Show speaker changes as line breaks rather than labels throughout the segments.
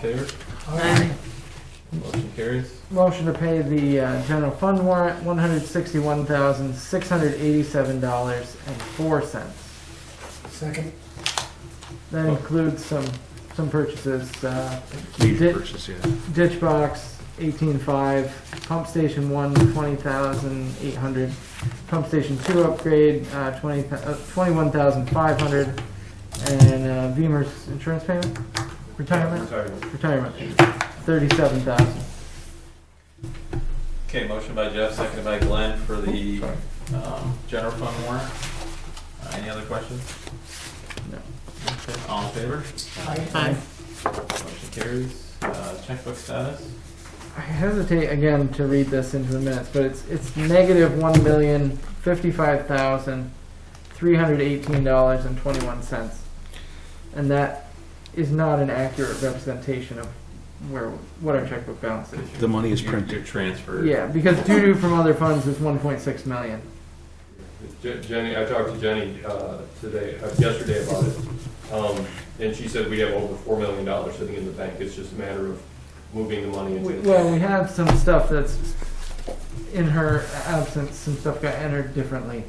favor? Motion carries.
Motion to pay the uh, general fund warrant, one hundred sixty-one thousand, six hundred eighty-seven dollars and four cents.
Second.
That includes some, some purchases, uh,
Need
Did-
to purchase, yeah.
ditch box, eighteen-five, pump station one, twenty thousand, eight hundred, pump station two upgrade, uh, twenty, uh, twenty-one thousand, five hundred, and, uh, Beamer's insurance payment, retirement,
Retirement.
retirement, thirty-seven thousand.
Okay, motion by Jeff, seconded by Glenn for the um, general fund warrant. Uh, Any other questions?
No.
Okay, All in favor?
Aye.
Motion carries. Uh, Checkbook status?
I hesitate again to read this into the minutes, but it's it's negative one million fifty-five thousand three hundred eighteen dollars and twenty-one cents, and that is not an accurate representation of where what our checkbook balance is.
The money is
Your-
printed.
Your transfer.
Yeah, because due to from other funds is one point six million.
Je- Jenny, I talked to Jenny uh, today, uh, yesterday about it, Um, and she said we have over $4 million sitting in the bank. It's just a matter of moving the money
We,
into.
well, we have some stuff that's in her absence. Some stuff got entered differently,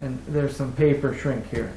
and there's some paper shrink here.